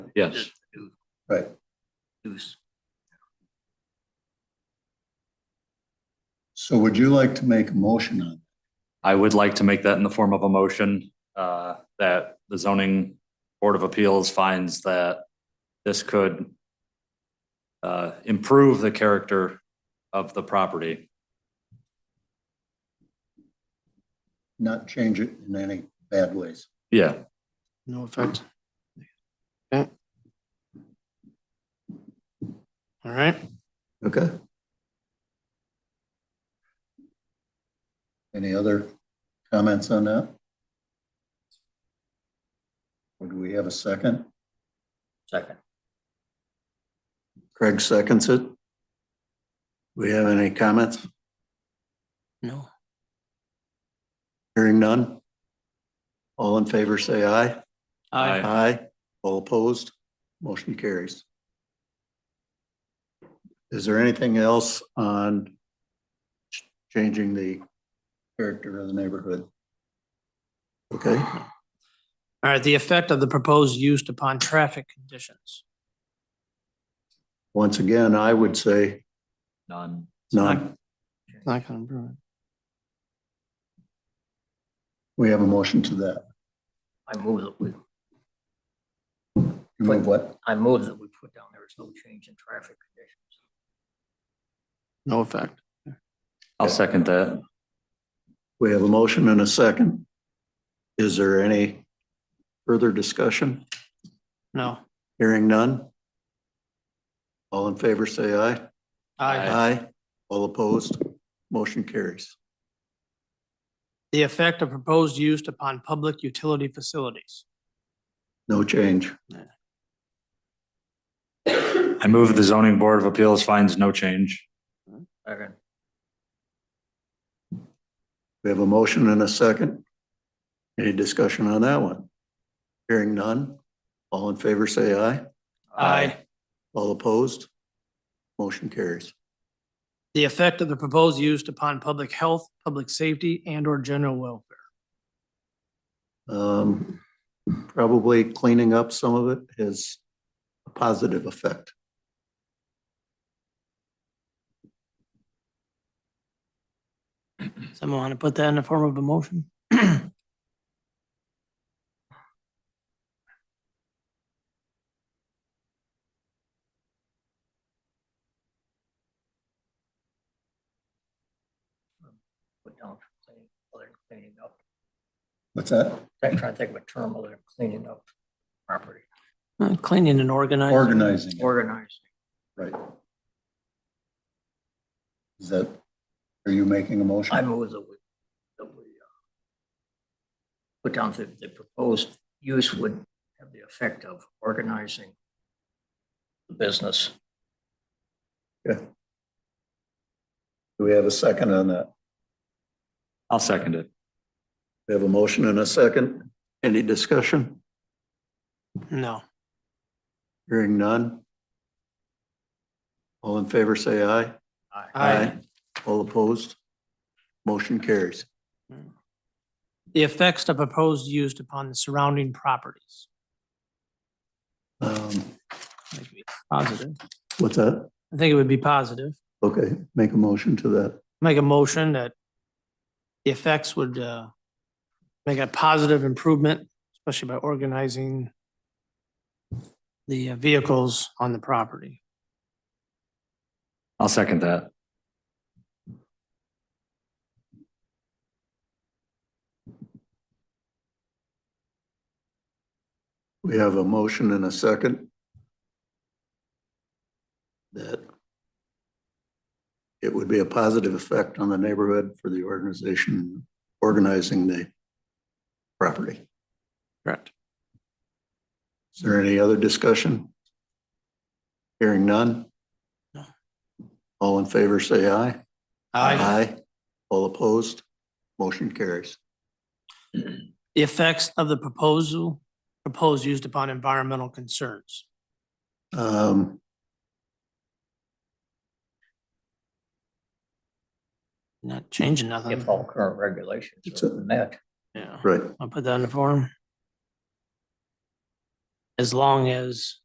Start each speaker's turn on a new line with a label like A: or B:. A: Yes.
B: Right.
C: Use.
B: So would you like to make a motion on?
A: I would like to make that in the form of a motion, uh, that the zoning board of appeals finds that this could uh, improve the character of the property.
B: not change it in any bad ways?
A: Yeah,
D: No effect. Okay. All right,
B: Okay. Any other comments on that? Would we have a second?
C: Second.
B: Craig seconds it. We have any comments?
D: no,
B: Hearing none? All in favor, say aye.
A: I,
B: Aye. All opposed? Motion carries. Is there anything else on ch- changing the character of the neighborhood? Okay,
D: all right, the effect of the proposed use upon traffic conditions.
B: once again, I would say
A: none.
B: none.
D: Not gonna improve it.
B: We have a motion to that.
C: I move that we,
B: You move what?
C: I move that we put down there is no change in traffic conditions.
D: No effect.
A: I'll second that.
B: We have a motion and a second. Is there any further discussion?
D: No.
B: Hearing none? All in favor, say aye.
A: Aye.
D: Aye.
B: Aye. All opposed? Motion carries.
D: The effect of proposed use upon public utility facilities.
B: No change.
A: I move the zoning board of appeals finds no change.
C: Second.
B: We have a motion and a second. Any discussion on that one? Hearing none. All in favor, say aye. All opposed? Motion carries.
D: The effect of the proposed use upon public health, public safety, and or general welfare.
B: Um, Probably cleaning up some of it has a positive effect.
D: Someone want to put that in the form of a motion?
C: Put down for cleaning, other than cleaning up.
B: What's that?
C: I'm trying to think of a term other than cleaning up property,
D: Uh, Cleaning and organizing.
B: Organizing, it,
C: organizing.
B: right. Is that, are you making a motion?
C: I move that we, that we uh, put down that the proposed use would have the effect of organizing the business.
B: Do we have a second on that?
A: I'll second it.
B: We have a motion and a second. Any discussion?
D: No.
B: Hearing none. All in favor, say aye.
D: Aye.
B: All opposed? Motion carries.
D: The effects of proposed use upon the surrounding properties.
B: Um,
D: Might be Positive.
B: What's that?
D: I think it would be positive.
B: Okay, make a motion to that.
D: make a motion that the effects would uh, make a positive improvement, especially by organizing the uh, vehicles on the property.
A: I'll second that.
B: We have a motion and a second. That it would be a positive effect on the neighborhood for the organization organizing the property.
D: Correct.
B: Is there any other discussion? Hearing none?
D: No.
B: All in favor, say aye.
D: Aye.
B: All opposed? Motion carries.
D: The effects of the proposal, proposed used upon environmental concerns.
B: Um,
D: Not changing nothing.
C: If all current regulations
B: It's a-
C: are met.
D: Yeah,
B: Right,
D: I'll put that in the form. As long as